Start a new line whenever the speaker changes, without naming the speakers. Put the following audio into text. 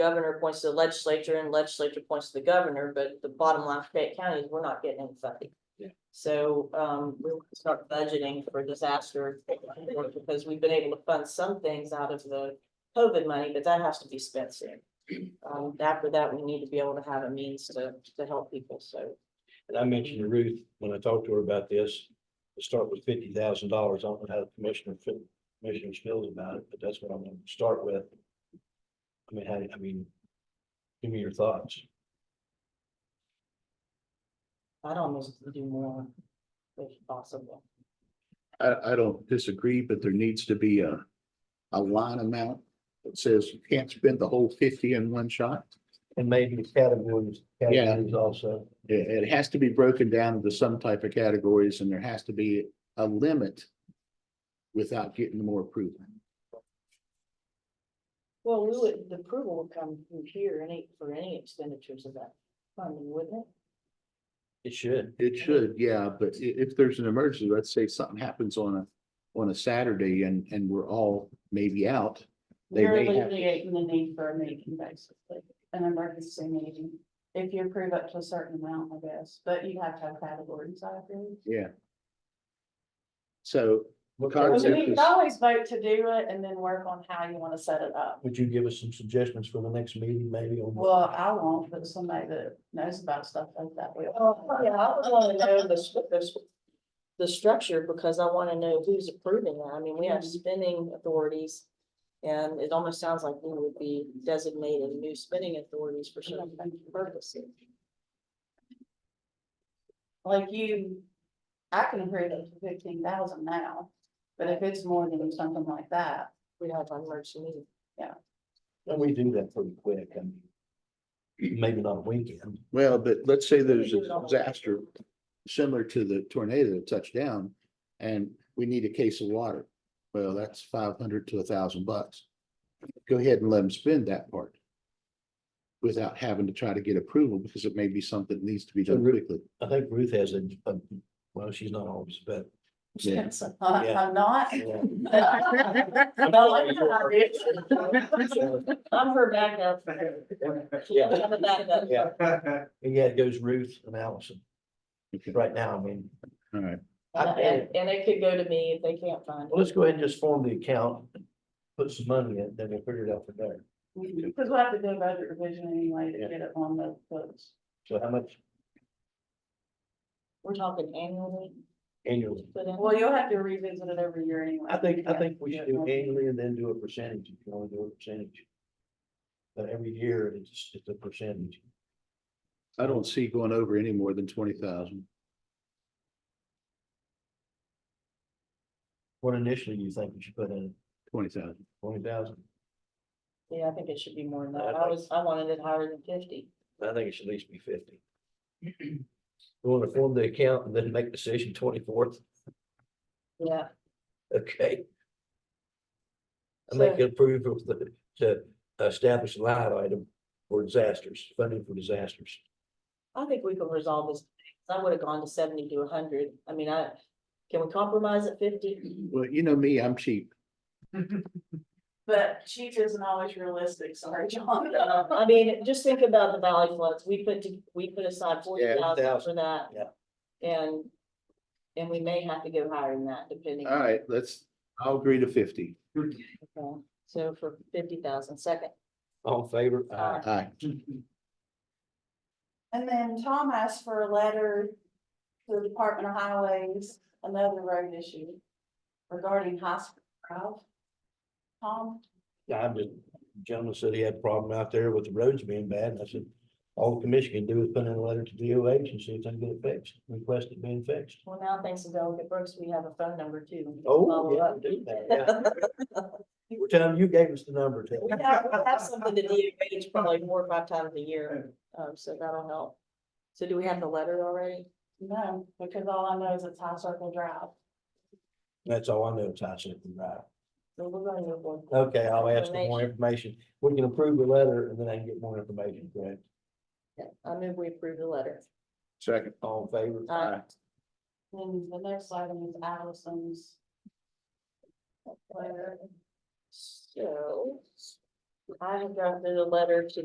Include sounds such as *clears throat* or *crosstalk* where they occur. governor points to the legislature and legislature points to the governor, but the bottom line for Fayette County is we're not getting any funding.
Yeah.
So, um, we'll start budgeting for disaster, because we've been able to fund some things out of the COVID money, but that has to be spent soon. Um, after that, we need to be able to have a means to, to help people, so.
And I mentioned to Ruth, when I talked to her about this, to start with fifty thousand dollars, I don't know how Commissioner, Phil- Commissioner feels about it, but that's what I'm gonna start with. I mean, how, do- I mean, give me your thoughts.
I'd almost do more if possible.
I, I don't disagree, but there needs to be a, a line amount that says you can't spend the whole fifty in one shot.
And maybe the categories,
Yeah.
categories also.
It, it has to be broken down into some type of categories and there has to be a limit without getting more approval.
Well, we would, the approval would come from here any, for any expenditures of that funding, wouldn't it?
It should.
It should, yeah, but i- if there's an emergency, let's say something happens on a, on a Saturday and, and we're all maybe out. They
You're
may have to-
alleviating the need for a meeting, basically, an emergency meeting, if you approve up to a certain amount, I guess, but you have to have categories, I agree.
Yeah. So
What
Well,
Well,
concept
Concept
You can
is-
always vote to do it and then work on how you wanna set it up.
Would you give us some suggestions for the next meeting, maybe on?
Well, I won't, but somebody that knows about stuff like that
Oh,
will.
yeah, I would wanna know the, stru- the, s- the structure, because I wanna know who's approving that, I mean, we have
Mhm.
spending authorities. And it almost sounds like we would be designated new spending authorities for
Mm.
certain purposes.
Like you, I can approve up to fifteen thousand now, but if it's more than something like that,
We have an emergency meeting,
And we do that pretty quick, I mean. Maybe not a weekend.
Well, but let's say there's a
do it all.
disaster similar to the tornado that touched down and we need a case of water. Well, that's five hundred to a thousand bucks. Go ahead and let them spend that part. Without having to try to get approval because it may be something that needs to be done
Agreed.
quickly.
I think Ruth has a, a- well, she's not always, but.
Yeah.
since I- I'm not.
yeah. *laughs*
I'm her backup.
Yeah,
I'm a backup.
yeah. And yeah, it goes Ruth and Allison
Okay,
right now. I mean,
all right.
And, and- and it could go to me if they can't find.
well, let's go ahead and just form the account, put some money in, then we'll figure it out from there.
Because we'll have to do a budget revision anyway to
Yeah.
get it on the books.
So how much
We're talking annually,
annually?
but in-
Well, you'll have to revisit it every year anyway.
I think, I think we should do annually and then do a percentage. You can only do a percentage. But every year, it's, it's a percentage.
I don't see going over any more than twenty thousand.
What initially you think we should put in?
Twenty thousand.
Twenty thousand?
yeah, I think it should be more than
I
that, I
think-
was, I wanted it higher than fifty.
I think it should at least be fifty. *clears throat* We want to form the account and then make decision twenty-fourth.
Yeah,
Okay. I
So-
make approve of the, to establish a line item for disasters, funding for disasters.
I think we can resolve this, I would have gone to seventy to hundred, I mean, I, can we compromise at fifty?
Well, you know me, I'm cheap.
But cheap isn't always realistic, sorry, John.
I mean, just think about the valley floods, we put, to- we put aside forty thousand for that.
Yeah.
And, and we may have to go higher than that, depending.
All right, let's, I'll agree to fifty.
Okay, So for fifty thousand, second,
All in favor?
Aye.
Aye.
And then Tom asked for a letter to the Department of Highways, another road issue regarding hospital. Drive. Tom?
Yeah, I'm just, gentleman said he had a problem out there with the roads being bad, and I said, all the commission can do is put in a letter to DOH and see if they can get it fixed, request it being fixed.
well, now thanks to Delegate Brooks, we have a phone number too. We can
Oh,
follow
yeah,
up.
do that,
*laughs*
yeah. We're telling, you gave us the number, tell
We have, we have something to DOH probably four or five times a year, um, so that'll help. So do we have the letter already?
No, because all I know is it's High Circle Drive.
That's all I know, it's I said, right.
So we're gonna move on.
Okay, I'll ask for more information. We can approve the letter and then I can get more information, correct?
Yeah, I move we approve the letter.
Second.
All in favor?
Aye.
And the next item is Allison's. Letter.
So I have gotten the letter to